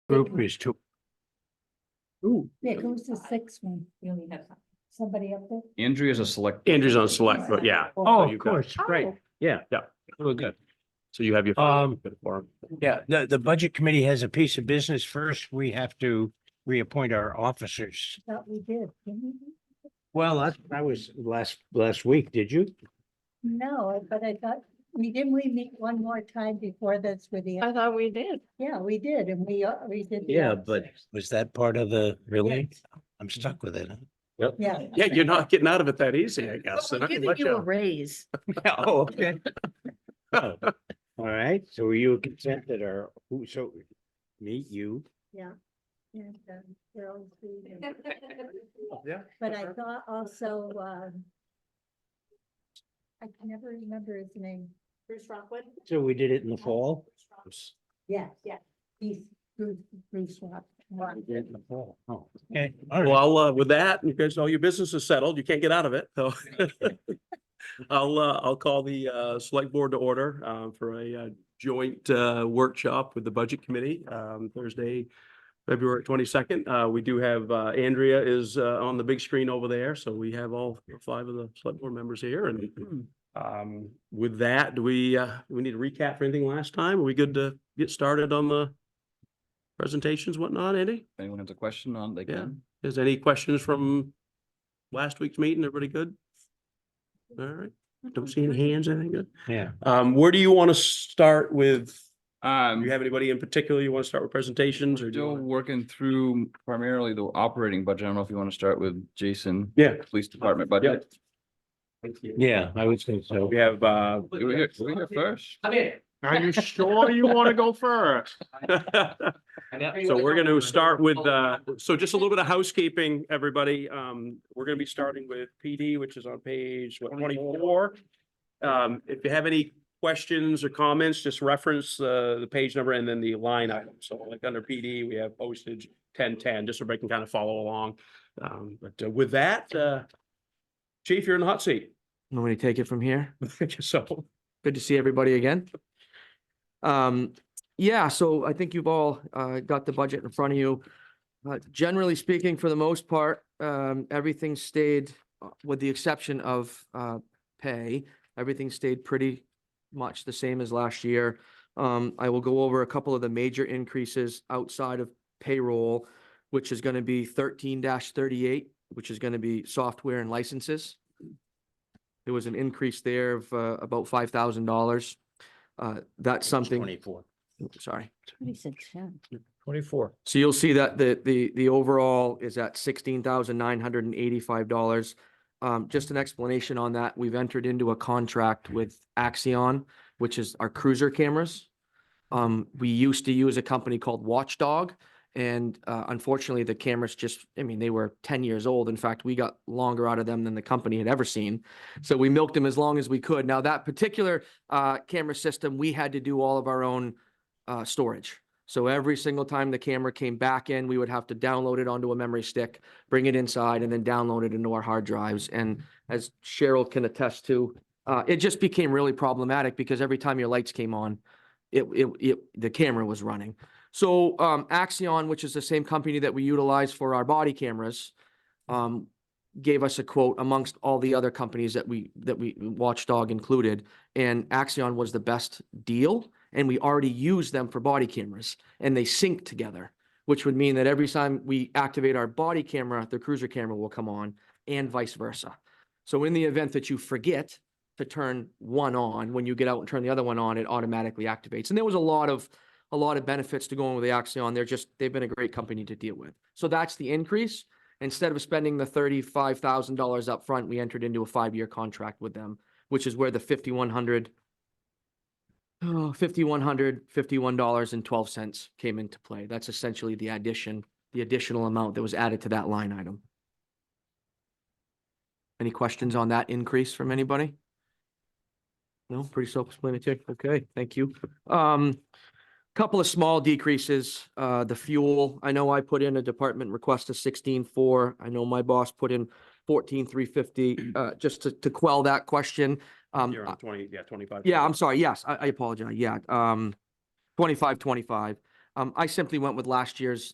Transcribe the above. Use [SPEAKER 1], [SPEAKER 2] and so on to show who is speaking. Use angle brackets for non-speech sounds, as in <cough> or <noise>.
[SPEAKER 1] group is two.
[SPEAKER 2] Ooh,
[SPEAKER 3] Yeah, who's the sixth one?
[SPEAKER 4] We only have
[SPEAKER 3] Somebody up there?
[SPEAKER 2] Andrea's a select.
[SPEAKER 1] Andrew's on select, but yeah.
[SPEAKER 2] Oh,
[SPEAKER 1] So
[SPEAKER 2] of
[SPEAKER 1] you got-
[SPEAKER 2] course,
[SPEAKER 1] Great,
[SPEAKER 5] Oh.
[SPEAKER 1] yeah.
[SPEAKER 2] Yeah.
[SPEAKER 1] Really good.
[SPEAKER 2] So you have your.
[SPEAKER 1] Um,
[SPEAKER 2] Forum.
[SPEAKER 5] Yeah, the, the budget committee has a piece of business. First, we have to reappoint our officers.
[SPEAKER 3] I Thought we did. didn't we?
[SPEAKER 5] Well, that's, that was last, last week, did you?
[SPEAKER 3] No, I- but I thought, we didn't we meet one more time before this with the,
[SPEAKER 4] Uh,
[SPEAKER 6] I thought we did.
[SPEAKER 3] yeah, we did, and we, uh, we did. the
[SPEAKER 5] Yeah, but
[SPEAKER 3] opposite.
[SPEAKER 5] was that part of the, really? I'm stuck with it. huh?
[SPEAKER 4] <laughs>
[SPEAKER 3] Yeah.
[SPEAKER 1] Yeah, you're not getting out of it that easy, I
[SPEAKER 6] But
[SPEAKER 1] guess.
[SPEAKER 6] we're
[SPEAKER 1] and I can
[SPEAKER 6] Giving
[SPEAKER 1] let
[SPEAKER 6] you a
[SPEAKER 1] you-
[SPEAKER 6] raise.
[SPEAKER 5] Yeah, <laughs> oh, okay. Oh, All right, so were you consented or who, so me, you?
[SPEAKER 3] and, um, Gerald Reed and-
[SPEAKER 4] something.
[SPEAKER 1] Yeah.
[SPEAKER 3] But I thought also, um, I can never remember his name.
[SPEAKER 4] Bruce Rockwood?
[SPEAKER 5] So we did it in the fall?
[SPEAKER 3] Yeah, yeah. He's Bruce, Bruce Rock.
[SPEAKER 5] We did it in the fall. Oh, okay. All right.
[SPEAKER 1] Well, uh, with that, you guys know your business is settled. You can't get out of it, so. <laughs> I'll, uh, I'll call the, uh, select board to order, um, for a, uh, joint, uh, workshop with the budget committee, um, Thursday, February twenty-second. Uh, we do have, uh, Andrea is, uh, on the big screen over there, so we have all five of the select board members here and, um, with that, do we, uh, do we need a recap for anything last time? Are we good to get started on the presentations, whatnot, Andy?
[SPEAKER 2] If anyone has a question on, they
[SPEAKER 1] Yeah.
[SPEAKER 2] can.
[SPEAKER 1] Is any questions from last week's meeting? Everybody good? All right, don't see any hands, anything good?
[SPEAKER 5] Yeah.
[SPEAKER 1] Um, where do you want to start with? Do
[SPEAKER 2] Um,
[SPEAKER 1] you have anybody in particular you want to start with presentations or do you?
[SPEAKER 2] still
[SPEAKER 1] wanna-
[SPEAKER 2] working through primarily the operating budget. I don't know if you want to start with Jason.
[SPEAKER 1] Yeah.
[SPEAKER 2] Police Department budget.
[SPEAKER 5] Yeah, I would say so.
[SPEAKER 1] We have, uh,
[SPEAKER 2] You were here, you were here first.
[SPEAKER 1] are you sure you want to go <laughs> first? So we're going to start with, uh, so just a little bit of housekeeping, everybody. Um, we're going to be starting with PD, which is on page what, twenty-four. Um, if you have any questions or comments, just reference, uh, the page number and then the line item. So like under PD, we have postage ten-ten, just so everybody can kind of follow along. Um, but uh, with that, uh, chief, you're in the hot seat. <laughs>
[SPEAKER 7] Want me to take it from here?
[SPEAKER 1] So,
[SPEAKER 7] Good to see everybody again. Um, yeah, so I think you've all, uh, got the budget in front of you. Uh, generally speaking, for the most part, um, everything stayed, uh, with the exception of, uh, pay. Everything stayed pretty much the same as last year. Um, I will go over a couple of the major increases outside of payroll, which is gonna be thirteen thirty-eight, which is gonna be software and licenses. There was an increase there of, uh, about five thousand dollars. Uh, that's something,
[SPEAKER 5] Twenty-four.
[SPEAKER 7] sorry.
[SPEAKER 6] Twenty-six, yeah.
[SPEAKER 1] twenty-four.
[SPEAKER 7] So you'll see that the, the, the overall is at sixteen thousand nine hundred and eighty-five dollars. Um, just an explanation on that. We've entered into a contract with Axion, which is our cruiser cameras. Um, we used to use a company called Watchdog and, uh, unfortunately the cameras just, I mean, they were ten years old. In fact, we got longer out of them than the company had ever seen. So we milked them as long as we could. Now that particular, uh, camera system, we had to do all of our own, uh, storage. So every single time the camera came back in, we would have to download it onto a memory stick, bring it inside and then download it into our hard drives. And as Cheryl can attest to, uh, it just became really problematic because every time your lights came on, it, it, it, the camera was running. So, um, Axion, which is the same company that we utilize for our body cameras, um, gave us a quote amongst all the other companies that we, that we, Watchdog included. And Axion was the best deal and we already use them for body cameras and they sync together, which would mean that every time we activate our body camera, the cruiser camera will come on and vice versa. So in the event that you forget to turn one on, when you get out and turn the other one on, it automatically activates. And there was a lot of, a lot of benefits to going with the Axion. They're just, they've been a great company to deal with. So that's the increase. Instead of spending the thirty-five thousand dollars upfront, we entered into a five-year contract with them, which is where the fifty-one hundred Oh, fifty-one hundred, fifty-one dollars and twelve cents came into play. That's essentially the addition, the additional amount that was added to that line item. Any questions on that increase from anybody? No, pretty self-explanatory. Okay, thank you. Um, couple of small decreases, uh, the fuel, I know I put in a department request of sixteen-four. I know my boss put in fourteen-three-fifty, uh, just to, to quell that question. Um,
[SPEAKER 1] You're on twenty, yeah, twenty-five.
[SPEAKER 7] yeah, I'm sorry. Yes, I, I apologize. Yeah, um, twenty-five, twenty-five. Um, I simply went with last year's